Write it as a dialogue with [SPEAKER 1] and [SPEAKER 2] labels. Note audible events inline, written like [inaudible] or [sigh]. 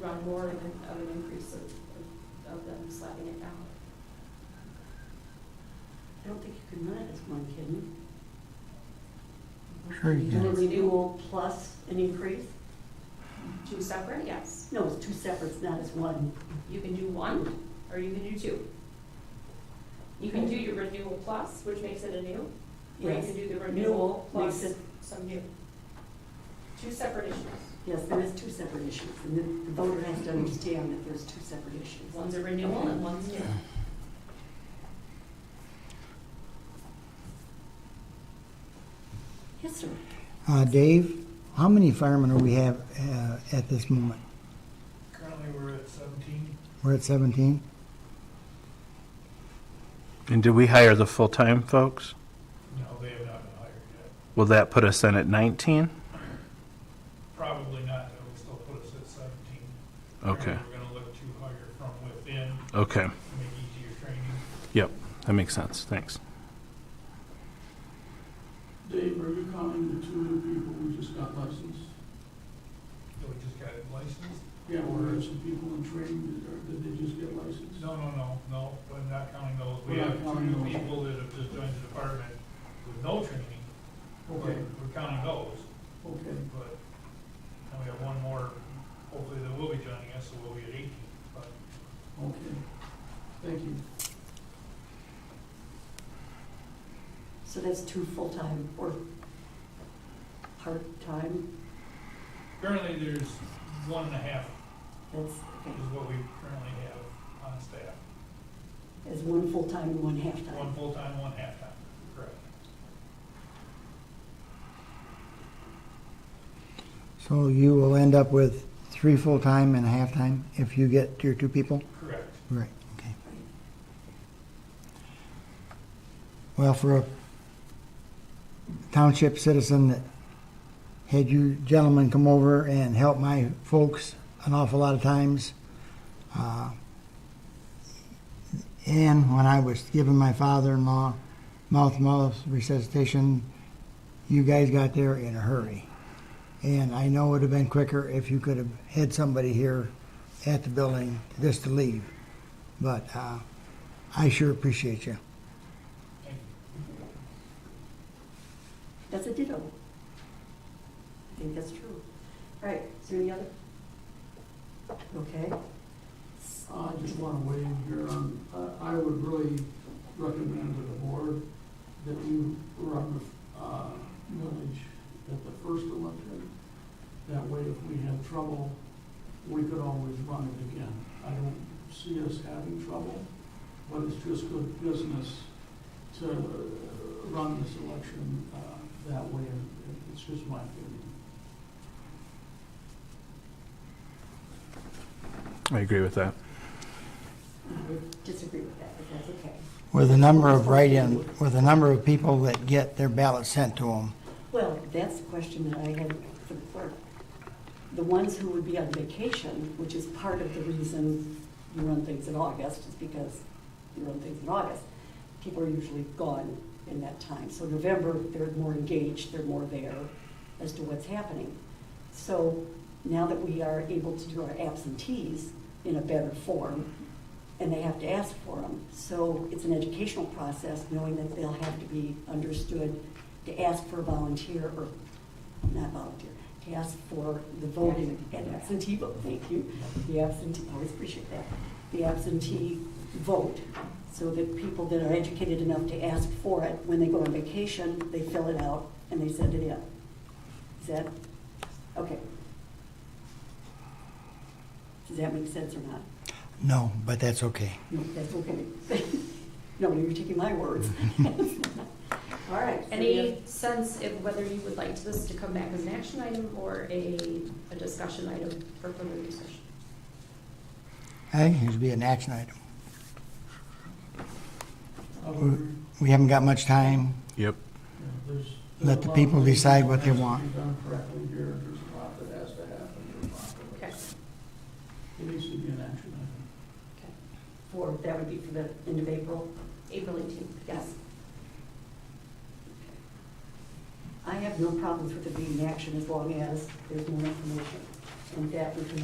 [SPEAKER 1] run more of an, of an increase of, of- of them slapping it down.
[SPEAKER 2] I don't think you can run it as one, can you?
[SPEAKER 3] Sure you
[SPEAKER 2] Do a
[SPEAKER 1] can.
[SPEAKER 2] renewal plus an increase?
[SPEAKER 1] Two separate, yes.
[SPEAKER 2] No, it's two separates, not as one.
[SPEAKER 1] You can do one, or you can do two. You can do your renewal plus, which makes it a new, or you
[SPEAKER 2] Yes.
[SPEAKER 1] can do the
[SPEAKER 2] Renewal
[SPEAKER 1] renewal plus
[SPEAKER 2] makes it-
[SPEAKER 1] some new. Two separate issues.
[SPEAKER 2] Yes, there is two separate issues, and the- the voter has to understand that there's two separate issues.
[SPEAKER 1] One's a renewal and one's new.
[SPEAKER 2] Yes, sir.
[SPEAKER 3] Uh, Dave, how many firemen do we have uh, at this moment?
[SPEAKER 4] Currently, we're at seventeen.
[SPEAKER 3] We're at 17?
[SPEAKER 5] And did we hire the full-time folks?
[SPEAKER 4] No, they have not been hired yet.
[SPEAKER 5] Will that put us then at 19?
[SPEAKER 4] Probably not, that will still put us at seventeen.
[SPEAKER 5] Okay,
[SPEAKER 4] We're gonna look to hire from within to
[SPEAKER 5] okay.
[SPEAKER 4] make easier training.
[SPEAKER 5] That makes sense. Thanks.
[SPEAKER 6] Dave, are you counting the two new people we just got licensed?
[SPEAKER 4] So we just got it licensed?
[SPEAKER 6] Yeah, or are some people in training, or did they just get licensed?
[SPEAKER 4] No, no, no, no, I'm not counting those. We
[SPEAKER 6] We're not
[SPEAKER 4] have two
[SPEAKER 6] counting
[SPEAKER 4] new
[SPEAKER 6] those.
[SPEAKER 4] people that have just joined the department with no training. but
[SPEAKER 6] Okay,
[SPEAKER 4] We're counting those,
[SPEAKER 6] okay,
[SPEAKER 4] but now we have one more, hopefully that will be joining us, so we'll be at eighteen. But
[SPEAKER 6] okay. Thank you.
[SPEAKER 2] So that's two full-time or part-time?
[SPEAKER 4] currently, there's one and a half
[SPEAKER 2] That's, okay,
[SPEAKER 4] is what we currently have on staff.
[SPEAKER 2] as one full-time and one half-time.
[SPEAKER 4] One full-time, one half-time, correct.
[SPEAKER 3] So you will end up with three full-time and a half-time if you get your two people?
[SPEAKER 4] Correct.
[SPEAKER 3] Right, okay. Well, for a township citizen that had you gentlemen come over and help my folks an awful lot of times, uh, and when I was giving my father-in-law mouth-to-mouth resuscitation, you guys got there in a hurry. And I know it would have been quicker if you could have had somebody here at the building just to leave. But uh, I sure appreciate you.
[SPEAKER 4] Thank you.
[SPEAKER 2] That's a ditto. I think that's true. All right, is there any other? Okay.
[SPEAKER 6] I just want to weigh in here on, uh, I, I would really recommend to the board that we run the, uh, millage at the first election. That way, if we have trouble, we could always run it again. I don't see us having trouble, but it's just good business to uh, run this election, uh, that way. It's just my opinion.
[SPEAKER 5] I agree with that.
[SPEAKER 2] I would disagree with that, but that's okay.
[SPEAKER 3] With the number of write-in, with the number of people that get their ballots sent to them,
[SPEAKER 2] Well, that's the question that I had for the clerk. The ones who would be on vacation, which is part of the reason you run things in August, is because you run things in August. People are usually gone in that time. So November, they're more engaged, they're more there as to what's happening. So now that we are able to do our absentees in a better form, and they have to ask for them. So it's an educational process, knowing that they'll have to be understood to ask for a volunteer, or not volunteer, to ask for the voting, and absentee vote, thank you. The absentee, I always appreciate that, the absentee vote, so that people that are educated enough to ask for it, when they go on vacation, they fill it out and they send it in. Is that, okay. Does that make sense or not?
[SPEAKER 3] no, but that's okay.
[SPEAKER 2] No, that's okay. [laughs] No, you're taking my words. [laughs] All right. so we have-
[SPEAKER 1] Any sense of whether you would like this to come back as an action item or a, a discussion item for further discussion?
[SPEAKER 3] I think it should be an action item.
[SPEAKER 6] Other-
[SPEAKER 3] We haven't got much time.
[SPEAKER 5] Yep.
[SPEAKER 6] Yeah, there's-
[SPEAKER 3] Let
[SPEAKER 6] there's
[SPEAKER 3] the
[SPEAKER 6] a lot
[SPEAKER 3] people
[SPEAKER 6] of things
[SPEAKER 3] decide what
[SPEAKER 6] that
[SPEAKER 3] they
[SPEAKER 6] has to
[SPEAKER 3] want.
[SPEAKER 6] be done correctly here. There's a lot that has to happen. There's a lot that-
[SPEAKER 1] Okay.
[SPEAKER 6] It needs to be an action item.
[SPEAKER 2] For, that would be for the end of April,
[SPEAKER 1] April eighteenth, yes.
[SPEAKER 2] yes. I have no problems with it being in action as long as there's more information. And that we can